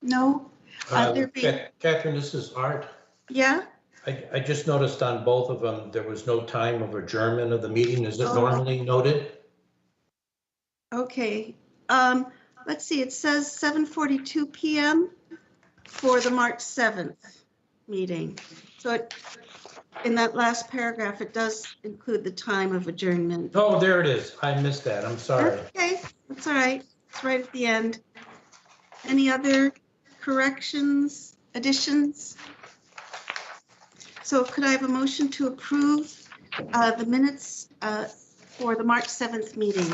No? Uh, there be- Ca- Catherine, this is Art. Yeah? I, I just noticed on both of them, there was no time of adjournment of the meeting. Is it Oh. normally noted? Okay. Um, let's see, it says 7:42 PM for the March 7th meeting. So it, in that last paragraph, it does include the time of adjournment. Oh, there it is. I missed that. I'm sorry. Okay, that's all right. It's right at the end. Any other corrections, additions? So could I have a motion to approve uh, the minutes uh, for the March 7th meeting?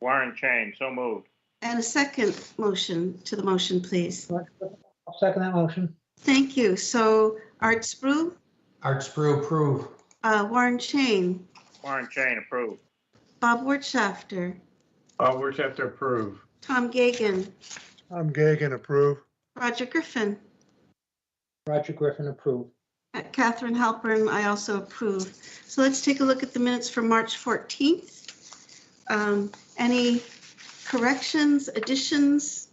Warren Chain, so moved. And a second motion to the motion, please. I'll second that motion. Thank you. So Art Spru, Art Sprou approve. uh, Warren Chain, Warren Chain approved. Bob Wertschafter, Uh, we have to approve. Tom Gagan, I'm Gagan, approve. Roger Griffin, Roger Griffin approved. uh, Catherine Halpern, I also approve. So let's take a look at the minutes for March 14th. Um, Any corrections, additions?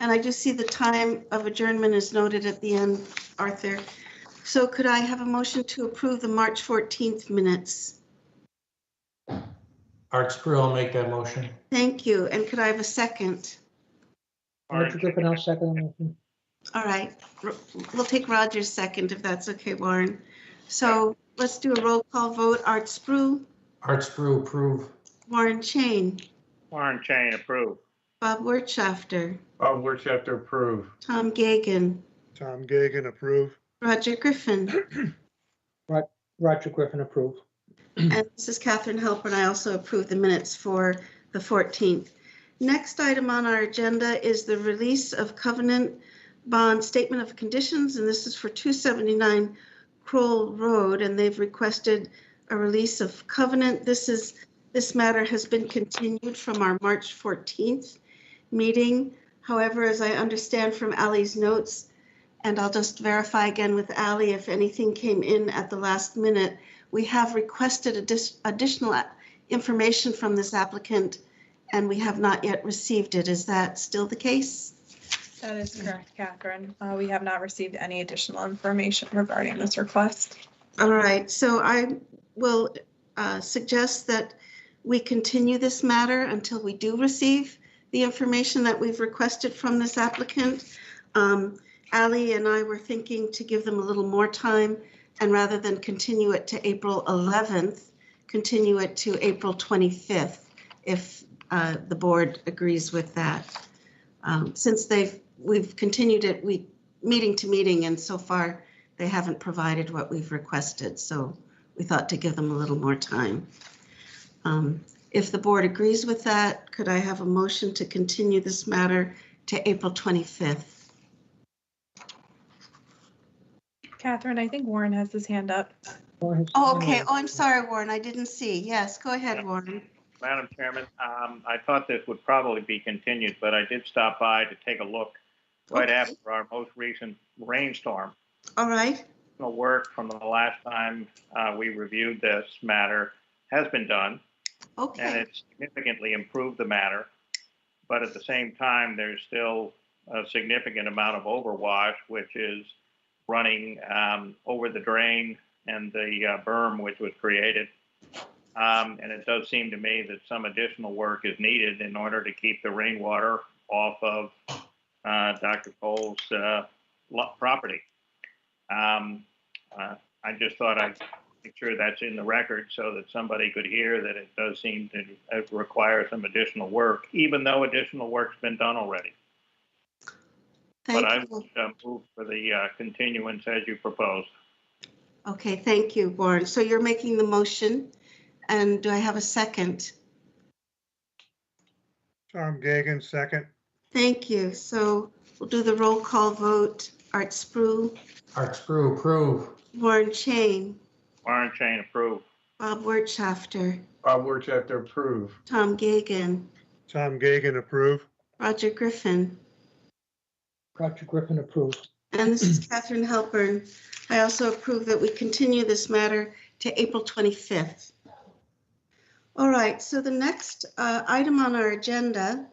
And I do see the time of adjournment is noted at the end, Arthur. So could I have a motion to approve the March 14th minutes? Art Sprou will make that motion. Thank you. And could I have a second? Warren Roger Griffin, I'll second the motion. All right, R- we'll take Roger's second if that's okay, Warren. So let's do a roll call vote. Art Spru, Art Sprou approve. Warren Chain, Warren Chain approved. Bob Wertschafter, Bob Wirtz have to approve. Tom Gagan, Tom Gagan, approve. Roger Griffin, Roger Griffin approved. and this is Catherine Halpern. I also approve the minutes for the 14th. Next item on our agenda is the release of covenant bond statement of conditions, and this is for 279 Kroll Road, and they've requested a release of covenant. This is, this matter has been continued from our March 14th meeting. However, as I understand from Ally's notes, and I'll just verify again with Ally if anything came in at the last minute, we have requested addi- additional a- information from this applicant, and we have not yet received it. Is that still the case? That is correct, Catherine. Uh, We have not received any additional information regarding this request. All right, so I will uh, suggest that we continue this matter until we do receive the information that we've requested from this applicant. Um, Ally and I were thinking to give them a little more time, and rather than continue it to April 11th, continue it to April 25th, if uh, the board agrees with that. Um, Since they've, we've continued it, we, meeting to meeting, and so far, they haven't provided what we've requested, so we thought to give them a little more time. Um, If the board agrees with that, could I have a motion to continue this matter to April 25th? Catherine, I think Warren has his hand up. Oh, okay. Oh, I'm sorry, Warren. I didn't see. Yes, go ahead, Warren. Madam Chairman, um, I thought this would probably be continued, but I did stop by to take a look right Okay. after our most recent rainstorm. All right. The work from the last time uh, we reviewed this matter has been done, and Okay. it significantly improved the matter. But at the same time, there's still a significant amount of overwash, which is running um, over the drain and the uh, berm which was created. Um, and it does seem to me that some additional work is needed in order to keep the rainwater off of uh, Dr. Cole's uh, lo- property. Um, uh, I just thought I'd make sure that's in the record so that somebody could hear that it does seem to uh, require some additional work, even though additional work's been done already. But I Thank you. would uh, move for the uh, continuance as you proposed. Okay, thank you, Warren. So you're making the motion, and do I have a second? Tom Gagan, second. Thank you. So we'll do the roll call vote. Art Spru, Art Sprou approve. Warren Chain, Warren Chain approved. Bob Wertschafter, Bob Wirtz have to approve. Tom Gagan, Tom Gagan, approve. Roger Griffin, Roger Griffin approved. and this is Catherine Halpern. I also approve that we continue this matter to April 25th. All right, so the next uh, item on our agenda